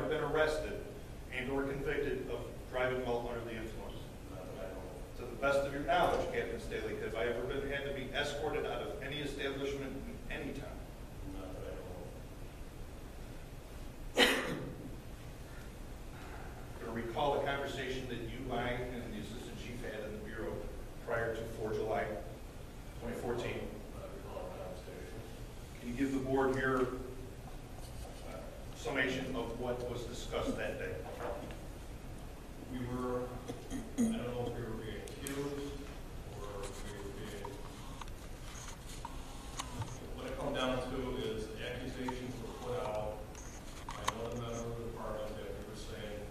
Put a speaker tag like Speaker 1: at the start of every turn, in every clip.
Speaker 1: arrested and/or convicted of driving while under the influence?
Speaker 2: Not that I know of.
Speaker 1: To the best of your knowledge, Captain Staley, have I ever been, had to be escorted out of any establishment in any time?
Speaker 2: Not that I know of.
Speaker 1: Or recall a conversation that you, I, and the Assistant Chief had in the Bureau prior to 4 July 2014?
Speaker 2: I recall a conversation.
Speaker 1: Can you give the board your uh, summation of what was discussed that day?
Speaker 2: We were, I don't know if we were being accused or if we were being. What it come down to is accusations were put out by another member of the department that we were saying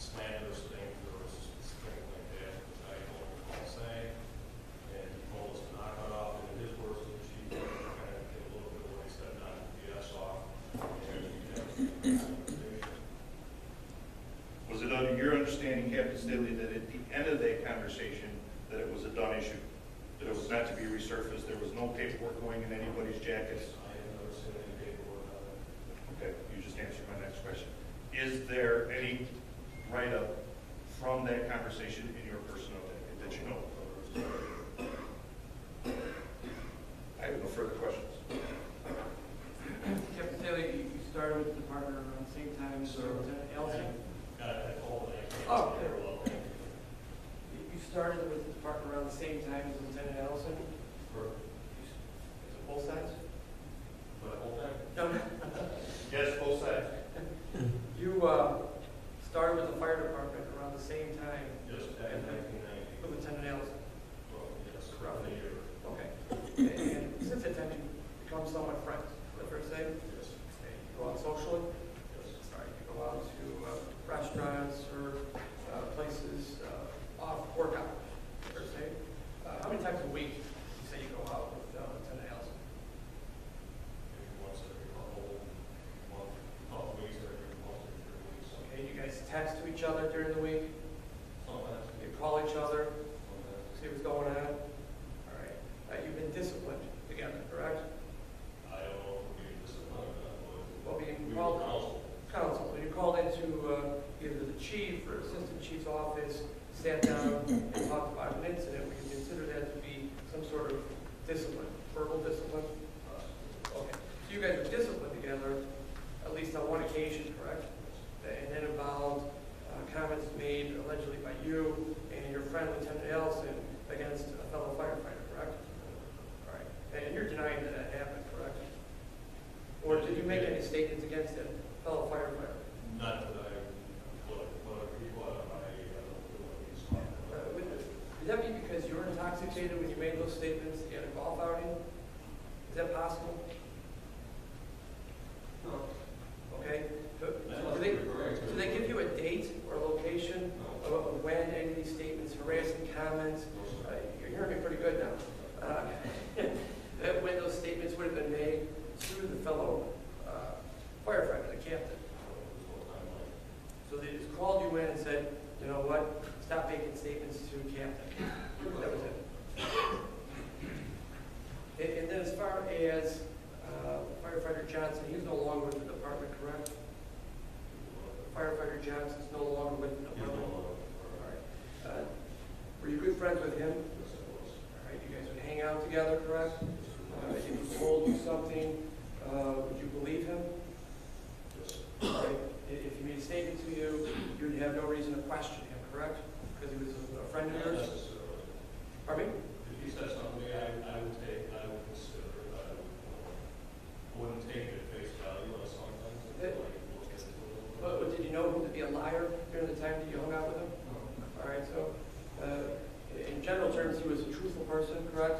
Speaker 2: slanderous things or something like that, which I don't recall saying. And he told us to knock it off, and in his words, the chief kind of did a little bit of what he said, not BS off. And we had a conversation.
Speaker 1: Was it under your understanding, Captain Staley, that at the end of that conversation, that it was a done issue? That it was not to be resurfaced, there was no paperwork going in anybody's jackets?
Speaker 2: I have never seen any paperwork on it.
Speaker 1: Okay, you just answered my next question. Is there any write-up from that conversation in your personnel packet that you know? of? I have no further questions.
Speaker 3: Captain Taylor, you you started with the department around the same time, so Lieutenant Allison,
Speaker 2: Got it, I told it, I
Speaker 3: Oh,
Speaker 2: can't
Speaker 3: okay.
Speaker 2: say very well.
Speaker 3: you you started with the department around the same time as Lieutenant Allison?
Speaker 2: For,
Speaker 3: You s- Is it both sides?
Speaker 2: for the whole thing?
Speaker 3: No, no.
Speaker 1: Yes, both sides.
Speaker 3: You uh, started with the fire department around the same time
Speaker 2: Yes, back in nineteen ninety.
Speaker 3: with Lieutenant Allison?
Speaker 2: Well, yes, around the year.
Speaker 3: Okay. And since that time, you become somewhat friends, the first day?
Speaker 2: Yes,
Speaker 3: You go out socially?
Speaker 2: yes.
Speaker 3: Sorry, you go out to uh, restaurants or uh, places uh, off work hours, per se. Uh, How many times a week do you say you go out with uh, Lieutenant Allison?
Speaker 2: Maybe once every couple, month, couple weeks, or every month, or three weeks.
Speaker 3: Okay, you guys text to each other during the week,
Speaker 2: Sometimes,
Speaker 3: you call each other,
Speaker 2: sometimes.
Speaker 3: see what's going on? All right, Uh, you've been disciplined together, correct?
Speaker 2: I don't know if we this is one of them, but.
Speaker 3: Well, being
Speaker 2: We
Speaker 3: called-
Speaker 2: were counseled.
Speaker 3: Counsel, when you called into uh, either the chief or assistant chief's office, sat down and talked about an incident, we can consider that to be some sort of discipline, verbal discipline? Uh, Okay, so you guys were disciplined together, at least on one occasion, correct? And that involved uh, comments made allegedly by you and your friend Lieutenant Allison against a fellow firefighter, correct? All right, and you're denying that that happened, correct? Or did you make any statements against a fellow firefighter?
Speaker 2: Not that I, what, what, what, I, I don't know what he's
Speaker 3: Uh,
Speaker 2: talking
Speaker 3: would-
Speaker 2: about.
Speaker 3: Would that be because you were intoxicated when you made those statements at a golf outing? Is that possible? No. Okay, but, so do they, do they give you a date or location of of when any of these statements, harassing comments? uh, You're hearing me pretty good now. Uh, That when those statements would have been made to the fellow uh, firefighter, the captain? So they just called you in and said, you know what, stop making statements to captain. That was it. And, and then as far as uh, firefighter Johnson, he's no longer with the department, correct? Firefighter Johnson's no longer with the department. All right. Uh, Were you good friends with him? All right, you guys would hang out together, correct? Uh, If he told you something, uh, would you believe him? Right? If if he made a statement to you, you would have no reason to question him, correct? Because he was a friend of yours? Pardon me?
Speaker 2: If he said something, I, I would take, I would consider, it, I would, uh, wouldn't take it at face value on something.
Speaker 3: It- But but did you know him to be a liar during the time that you hung out with him? All right, so, uh, in general terms, he was a truthful person, correct?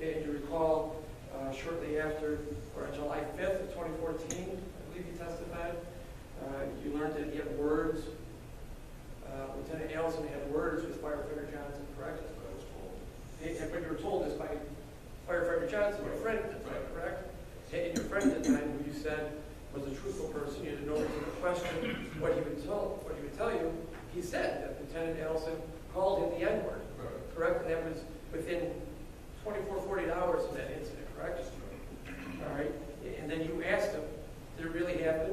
Speaker 3: And you recall uh, shortly after, or on July 5th of 2014, I believe you testified, uh, you learned that he had words, uh, Lieutenant Allison had words with firefighter Johnson, correct? And and what you were told is by firefighter Johnson, your friend at the time, correct? And and your friend at the time, who you said was a truthful person, you had no reason to question what he would tell, what he would tell you. He said that Lieutenant Allison called him the N-word, correct? And that was within 24, 48 hours of that incident, correct? All right, and then you asked him, did it really happen?